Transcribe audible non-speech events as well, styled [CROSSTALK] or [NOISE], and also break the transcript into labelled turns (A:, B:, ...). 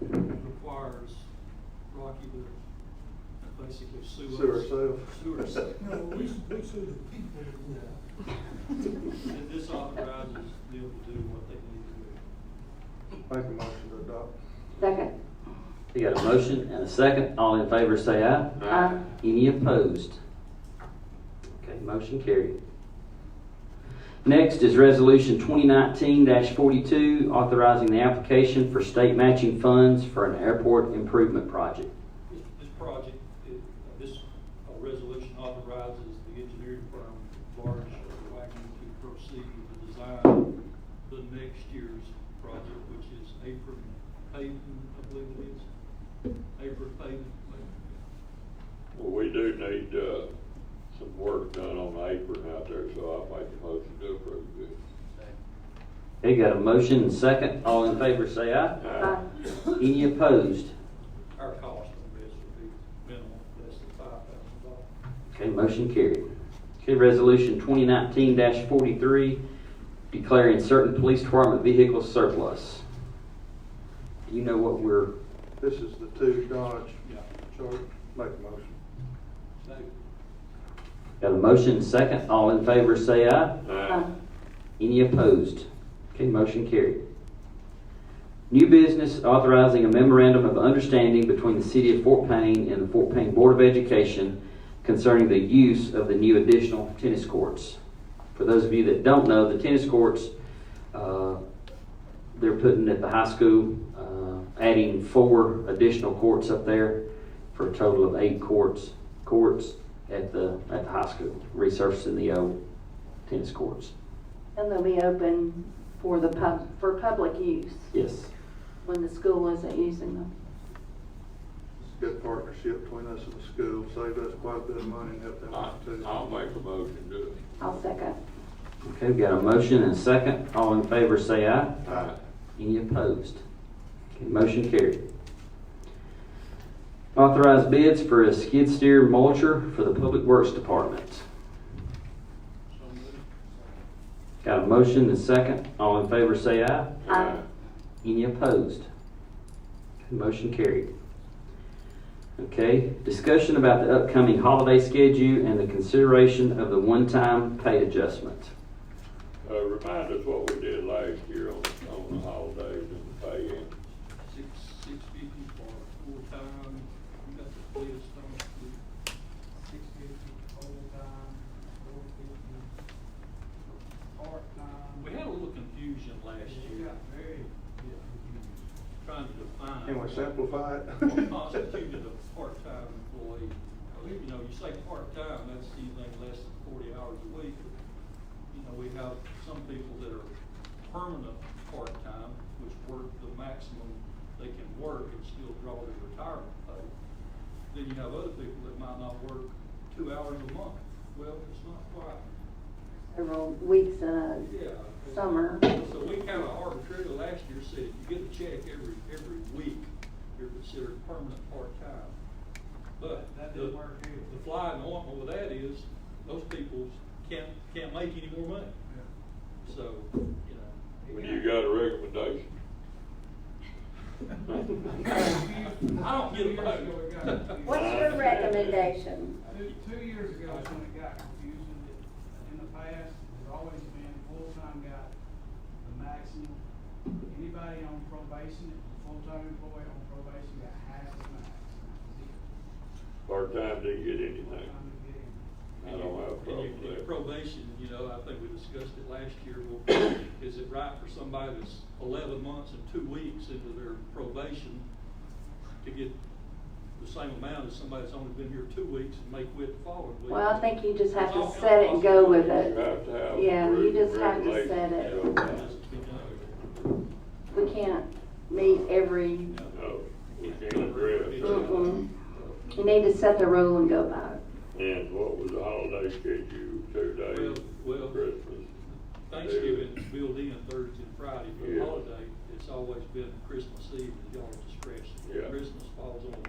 A: requires Rocky to basically sue us.
B: Sue herself.
A: Sue [LAUGHS] herself.
C: No, we, we sue the people.
A: Yeah. And this authorizes them to do what they need
B: Make a motion to adopt.
D: Second.
E: We got a motion and a second. All in favor say aye.
D: Aye.
E: Any opposed? Okay, motion carried. Next is Resolution 2019-42, authorizing the application for state matching funds for an airport improvement project.
A: to do. This, this project, it, uh, this uh, resolution authorizes the engineering firm, Large Wagner, to proceed with the design of the next year's project, which is apron paving, I believe it is. Apron paving, maybe.
F: Well, we do need, uh, some work done on the apron out there, so I make a motion to approve this.
E: Okay, got a motion and second. All in favor say aye.
D: Aye.
E: Any opposed?
A: Our cost on this would be minimal, less than five thousand dollars.
E: Okay, motion carried. Okay, resolution twenty nineteen forty-three, declaring certain police department vehicles surplus. Do you know what we're,
B: This is the two Dodge
A: Yeah.
B: Charger. Make a motion.
A: David?
E: got a motion second, all in favor say aye.
D: Aye.
E: Any opposed? Okay, motion carried. New business authorizing a memorandum of understanding between the city of Fort Payne and the Fort Payne Board of Education concerning the use of the new additional tennis courts. For those of you that don't know, the tennis courts, uh, they're putting at the high school, uh, adding four additional courts up there for a total of eight courts, courts at the, at the high school, resurfacing the old tennis courts.
D: And they'll be open for the pub, for public use
E: Yes.
D: when the school isn't using them.
B: It's a good partnership between us and the school. Save us quite a bit of money and help them
F: I,
B: out too.
F: I'll make a motion to it.
D: I'll second.
E: Okay, we've got a motion and a second. All in favor say aye.
B: Aye.
E: Any opposed? Okay, motion carried. Authorized bids for a skid steer mulcher for the Public Works Department.
A: So moved.
E: Got a motion and a second. All in favor say aye.
D: Aye.
E: Any opposed? Okay, Motion carried. Okay, discussion about the upcoming holiday schedule and the consideration of the one-time pay adjustment.
F: Uh, remind us what we did last year on, on the holidays and the pay in.
A: Six, six fifty for full-time, you got the list on it.
C: Six fifty overtime, four fifty part-time.
A: We had a little confusion last year.
C: very.
A: Yeah. Trying to define.
B: Can we simplify it?
A: What constituted a part-time employee? You know, you say part-time, that's anything less than forty hours a week. You know, we have some people that are permanent part-time, which work the maximum they can work and still draw their retirement pay. Then you have other people that might not work two hours a month. Well, it's not quite.
D: Several weeks in a
A: Yeah.
D: summer.
A: So we kind of arbitrarily last year said, if you get a check every, every week, you're considered permanent part-time. But
C: That
A: the,
C: didn't work either.
A: the fly in the ointment with that is, those people can't, can't make any more money. So, you know.
F: When you got a recommendation,
A: I don't get a [LAUGHS] vote.
D: What's your recommendation?
C: Two, two years ago is when it got confusing, that in the past, there's always been full-time guy, the maximum. Anybody on probation, full-time employee on probation got half the max.
F: part-time didn't get anything.
C: Full-time to get
F: I
C: in.
F: don't have a
A: And
F: problem
A: you-
F: with
A: and
F: that.
A: Probation, you know, I think we discussed it last year, well, [COUGHS] is it right for somebody that's eleven months and two weeks into their probation to get the same amount as somebody that's only been here two weeks and may quit the following week?
D: Well, I think you just have
A: There's all kinds
D: to set it
A: of
D: and go with
F: You
D: it.
F: have to have.
D: Yeah, you
F: rules
D: just
F: and
D: have to set
F: regulations
D: it.
F: to go
D: We can't meet every,
F: by. No, Oh, we can't address it.
D: mm-mm. You need to set the rule and go by it.
F: And what was the holiday schedule, two days,
A: Well, well,
F: Christmas?
A: Thanksgiving is built in Thursday and Friday, but
F: Yeah.
A: holiday, it's always been Christmas Eve, at y'all's discretion.
F: Yeah.
A: Christmas falls on